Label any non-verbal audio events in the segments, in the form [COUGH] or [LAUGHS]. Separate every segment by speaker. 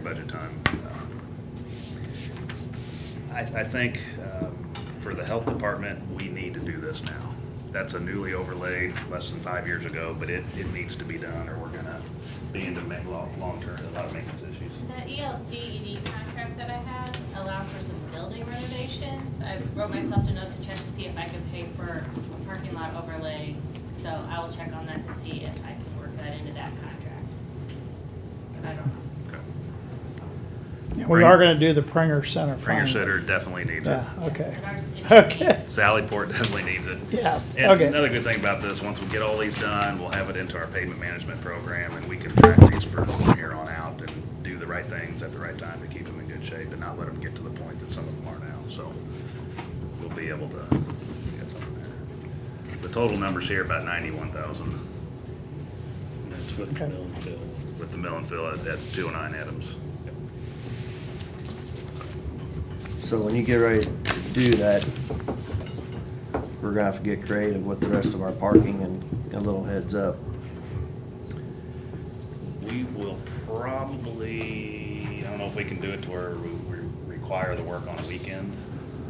Speaker 1: budget time. Um, I, I think um, for the health department, we need to do this now. That's a newly overlaid less than five years ago, but it, it needs to be done or we're gonna be into ma- long, long-term, a lot of maintenance issues.
Speaker 2: The E ELC ED contract that I have allows for some building renovations. I wrote myself a note to check to see if I can pay for a parking lot overlay. So I will check on that to see if I can work that into that contract. But I don't know.
Speaker 1: Okay.
Speaker 3: And we are gonna do the Pringer Center
Speaker 1: Pringer
Speaker 3: finally.
Speaker 1: Center definitely needs it.
Speaker 3: Yeah, okay,
Speaker 2: But ours- it
Speaker 3: [LAUGHS]
Speaker 2: does need-
Speaker 3: okay,
Speaker 1: Sallyport definitely needs it.
Speaker 3: yeah,
Speaker 1: And
Speaker 3: okay.
Speaker 1: another good thing about this, once we get all these done, we'll have it into our pavement management program and we can track these for from here on out and do the right things at the right time to keep them in good shape and not let them get to the point that some of them are now, so we'll be able to get something there. The total number's here about ninety-one thousand
Speaker 4: That's what
Speaker 3: Okay.
Speaker 4: the bill filled.
Speaker 1: with the mill and fill at, at two oh nine Adams.
Speaker 5: So when you get ready to do that, we're gonna have to get creative with the rest of our parking and a little heads up.
Speaker 1: We will probably, I don't know if we can do it to where we we require the work on a weekend.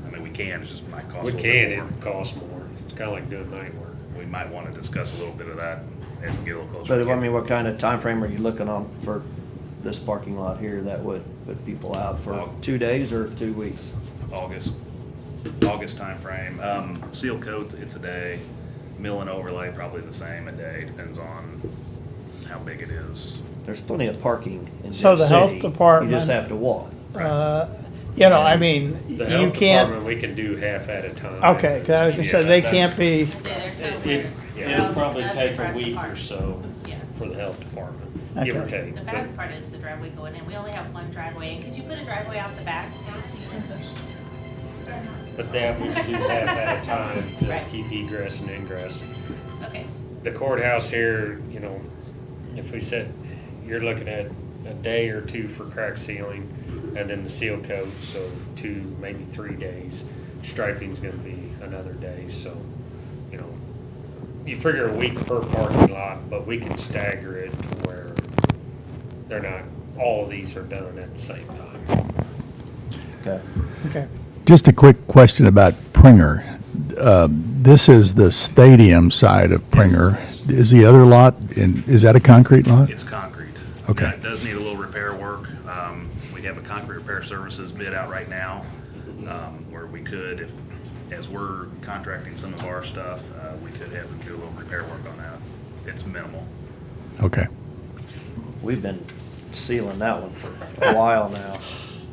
Speaker 1: I mean, we can, it's just might cost a
Speaker 4: We
Speaker 1: little
Speaker 4: can,
Speaker 1: bit more.
Speaker 4: it costs more. It's kinda like doing night work.
Speaker 1: we might want to discuss a little bit of that as we get a little closer.
Speaker 5: But I mean, what kind of time frame are you looking on for this parking lot here that would put people out for two days or two weeks?
Speaker 1: August, August timeframe. Um, seal coat, it's a day. Mill and overlay, probably the same a day, depends on how big it is.
Speaker 5: There's plenty of parking in Dip City.
Speaker 3: So the health
Speaker 5: You
Speaker 3: department-
Speaker 5: just have to walk.
Speaker 3: Uh, You know, I mean,
Speaker 4: The
Speaker 3: you
Speaker 4: health
Speaker 3: can't,
Speaker 4: department, we can do half at a time.
Speaker 3: okay, 'cause I was gonna say,
Speaker 4: Yeah,
Speaker 3: they
Speaker 4: that's-
Speaker 3: can't be,
Speaker 2: I say there's no
Speaker 4: It-
Speaker 2: way.
Speaker 4: it- It'll probably
Speaker 2: That's
Speaker 4: take a
Speaker 2: across the
Speaker 4: week or
Speaker 2: park.
Speaker 4: so
Speaker 2: Yeah.
Speaker 4: for the health department, give or
Speaker 3: Okay.
Speaker 4: take.
Speaker 2: The
Speaker 4: but-
Speaker 2: bad part is the driveway going in. We only have one driveway. And could you put a driveway out the back too?
Speaker 4: But that we can do half at a time
Speaker 2: [LAUGHS] Right.
Speaker 4: to keep egress and ingress.
Speaker 2: Okay.
Speaker 4: The courthouse here, you know, if we set, you're looking at a day or two for crack sealing and then the seal coat, so two, maybe three days. Striping's gonna be another day, so, you know, you figure a week per parking lot, but we can stagger it to where they're not, all of these are done at the same time.
Speaker 5: Okay.
Speaker 3: okay.
Speaker 6: Just a quick question about Pringer. Uh, This is the stadium side of Pringer.
Speaker 4: Yes,
Speaker 6: Is the other lot, in is that a concrete lot?
Speaker 1: It's concrete.
Speaker 6: Okay.
Speaker 1: Now, It does need a little repair work. Um, we have a concrete repair services bid out right now, um, where we could, if, as we're contracting some of our stuff, uh, we could have them do a little repair work on that. It's minimal.
Speaker 6: Okay.
Speaker 5: We've been sealing that one for a while now,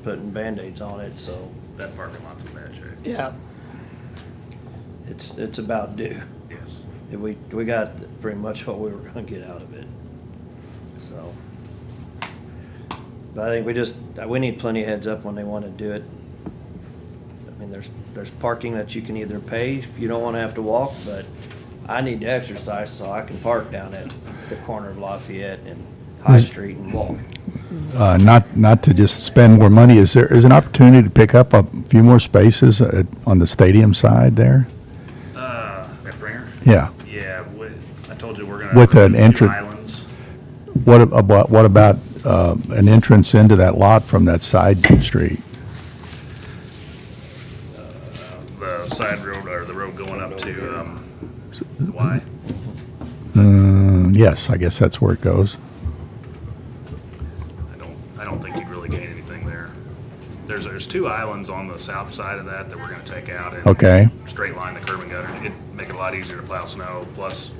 Speaker 5: putting Band-Aids on it, so
Speaker 1: That parking lot's in bad shape.
Speaker 3: Yeah,
Speaker 5: it's, it's about due.
Speaker 1: Yes.
Speaker 5: We, we got pretty much what we were gonna get out of it, so. But I think we just, uh, we need plenty of heads up when they wanna do it. I mean, there's, there's parking that you can either pay if you don't wanna have to walk, but I need to exercise so I can park down at the corner of Lafayette and High
Speaker 6: Is-
Speaker 5: Street and walk.
Speaker 6: Uh, Not, not to just spend more money, is there, is an opportunity to pick up a few more spaces uh, on the stadium side there?
Speaker 1: Uh, at Bringer?
Speaker 6: Yeah.
Speaker 1: Yeah, we- I told you we're gonna.
Speaker 6: With an
Speaker 1: remove two
Speaker 6: entrance-
Speaker 1: Islands.
Speaker 6: What ab- about, what about uh, an entrance into that lot from that side street?
Speaker 1: the side road, or the road going up to, um, the Y.
Speaker 6: Mm, Yes, I guess that's where it goes.
Speaker 1: I don't, I don't think you'd really gain anything there. There's, there's two islands on the south side of that that we're gonna take out and.
Speaker 6: Okay.
Speaker 1: Straight line the curb and gutter. It'd make it a lot easier to plow snow, plus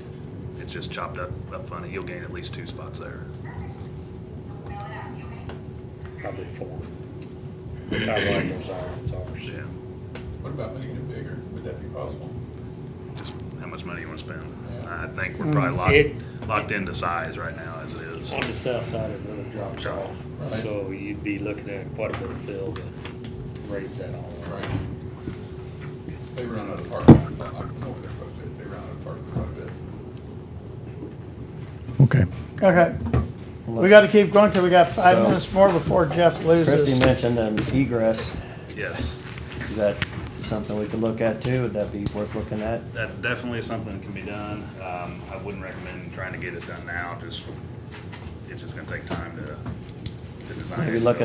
Speaker 1: it's just chopped up, up funny. You'll gain at least two spots there.
Speaker 4: Probably four. How wide those islands are. so.
Speaker 1: Yeah.
Speaker 7: What about making it bigger? Would that be possible?
Speaker 1: Just how much money you wanna spend. I think we're probably locked, locked into size right now as it is.
Speaker 4: On the south side, it really drops off,
Speaker 7: Right.
Speaker 4: so you'd be looking at quite a bit of fill to raise that all up.
Speaker 7: Right. They run out of parking, I'm I'm over there quite a bit, they run out of parking quite a bit.
Speaker 6: Okay.
Speaker 3: Okay, we gotta keep going till we got five
Speaker 5: So-
Speaker 3: minutes more before Jeff
Speaker 5: Christie
Speaker 3: loses.
Speaker 5: mentioned an egress,
Speaker 1: Yes.
Speaker 5: is that something we could look at too? Would that be worth looking at?
Speaker 1: That definitely is something that can be done. Um, I wouldn't recommend trying to get it done now, just, it's just gonna take time to,
Speaker 8: the design.
Speaker 1: Maybe look